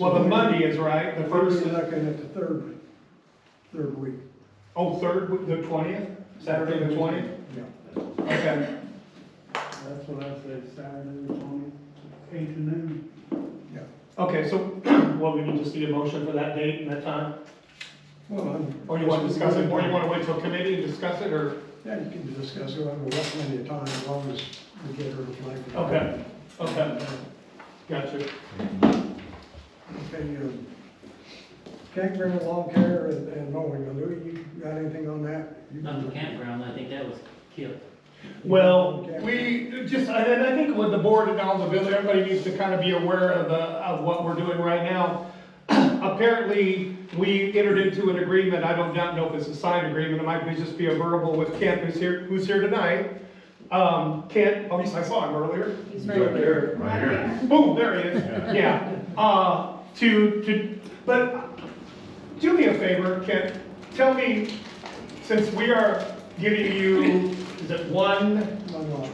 Well, the Monday is right, the We're first looking is, at the third, week, third week. oh, third, week, the twentieth, Saturday the twentieth, Yeah, okay. That's what I say, Saturday, the twentieth, eight to noon. yeah. Okay, so, well, we need to see a motion for that date and that time, Well, I'm- or you wanna discuss it, or you wanna wait till committee and discuss it, or? Yeah, you can discuss it, I mean, that's plenty of time, as long as we get her to like. Okay, okay, gotcha. Okay, um, campground, lawn care and and mowing, Now, Louis, you got anything on that? You On the can- campground, I think that was killed. Well, we just, I, and I think with the board and all the village, everybody needs to kind of be aware of the, of what we're doing right now. Apparently, we entered into an agreement, I don't not know if it's a signed agreement, it might be just be a verbal with Kent, who's here, who's here tonight. Um, Kent, oh, I saw him earlier. He's right there. Right here. Boom, there he is, yeah. Uh, to, to, but do me a favor, Kent, tell me, since we are giving you, is it one? One lot.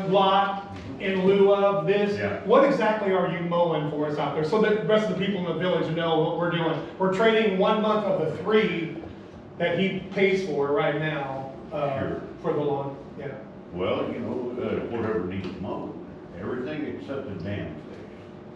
one lot in lieu of this? Yeah. What exactly are you mowing for us out there? So that the rest of the people in the village know what we're doing. We're trading one month of the three that he pays for right now, uh, Sure. for the lawn, yeah. Well, you know, uh, whatever needs mowed, everything except the dam face.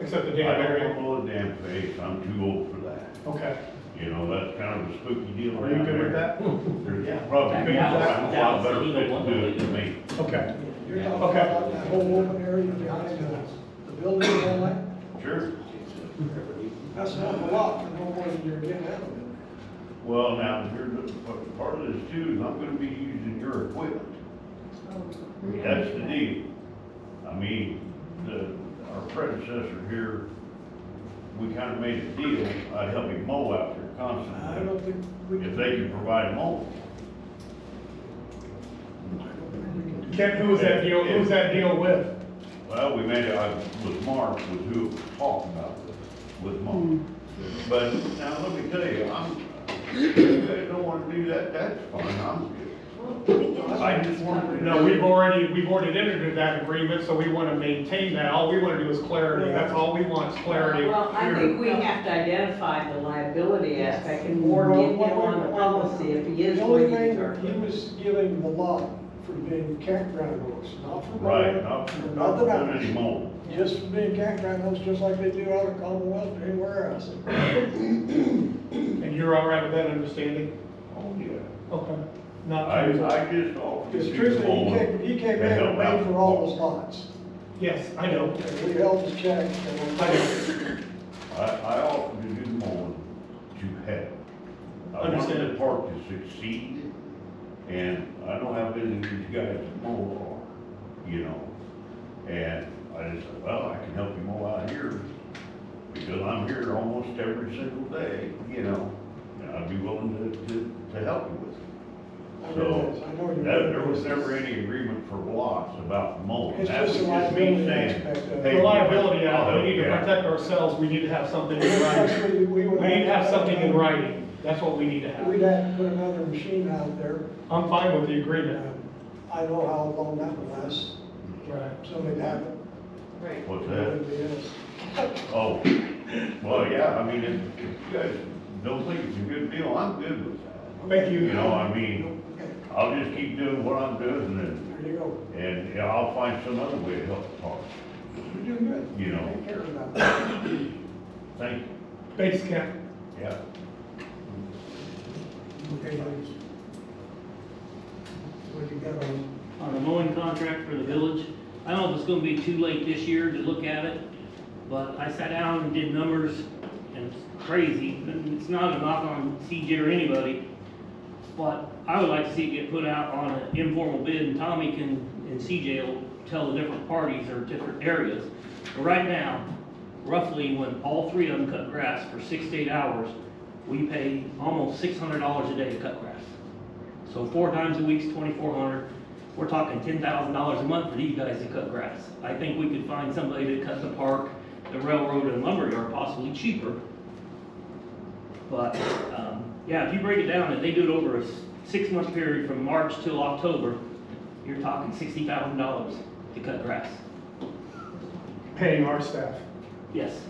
Except the I damn don't wanna area, mow the dam face, I'm too old for that. okay. You know, that's kind of a spooky deal Are around there. Hmm. you good with that? There's probably people Yeah. around a That lot better was- that fit to was do it illegal. than me. Okay, You're talking about that whole open area behind uh, the, the building and all that? Sure. That's an awful lot, for no more than you're getting out of it. Well, now, here's, the- but part of this too, is I'm gonna be using your equipment. That's the deal. I mean, the, our predecessor here, we kind of made a deal, I'd help him mow out there I constantly, don't think we if can, they can provide mowing. I don't think we can do that. Kent, who was that deal, who was that deal with? Well, we made it, I, with Mark, was who was talking about this, with Mark. Hmm. But now, let me tell you, I'm, if you guys don't wanna do that, that's fine, I'm good. I just wanted to No, know, we've already, we've already entered into that agreement, so we wanna maintain that. All we wanna do is clarity, that's all we want is clarity. Well, I think we have to identify the liability aspect and more Well, get him what- on the what- policy if he is The only what he's thing, earned. he was giving the lot for being campground hosts, not for. right, mowing, not, for not Nothing else. doing any mowing. Just for being campground hosts, just like they do out of Commonwealth or anywhere else. And you're all right with that understanding? Oh, yeah. Okay. Not. I, I just offered. Because you truthfully, mowing he came, he came to in help and paid out. for all those lots. Yes, I know. We held his check. and- I know. I, I offered to do more to help. I wanted the Understand. park to succeed, and I know how busy these guys mow are, you know? And I just said, well, I can help you mow out here, because I'm here almost every single day, you know? And I'd be willing to, to, to help you with it. I realize, So, I know you. that, there was never any agreement for blocks about mowing. It's That was just a just me liability saying, aspect of it. hey, The liability, I'll uh, help we need to you out. protect ourselves, we need to have something in writing. We we We would. need to have something in writing, that's what we need to We'd have. have to put another machine out there. I'm fine with the agreement. Um, I know how long that would last, Right. something happened. Right. What's it that? would be us. Oh, well, yeah, I mean, if you guys don't think it's a good deal, I'm good with that. Thank You know, you. I mean, Okay, I'll just keep doing what I'm doing and, There you go. and yeah, I'll find some other way to help the park, You're doing good. you know, Take care of that. thank, Thanks, Kent. yeah. Okay, thanks. What you got on? On the mowing contract for the village, I don't know if it's gonna be too late this year to look at it, but I sat down and did numbers, and it's crazy, and it's not a knock on CJ or anybody, but I would like to see it get put out on an informal bid, and Tommy can, and CJ will tell the different parties or different areas. But right now, roughly when all three of them cut grass for six to eight hours, we pay almost six hundred dollars a day to cut grass. So four times a week's twenty-four hundred, we're talking ten thousand dollars a month for these guys to cut grass. I think we could find somebody to cut the park, the railroad and lumberyard possibly cheaper. But, um, yeah, if you break it down and they do it over a s- six-month period from March till October, you're talking sixty thousand dollars to cut grass. Paying our staff. Yes,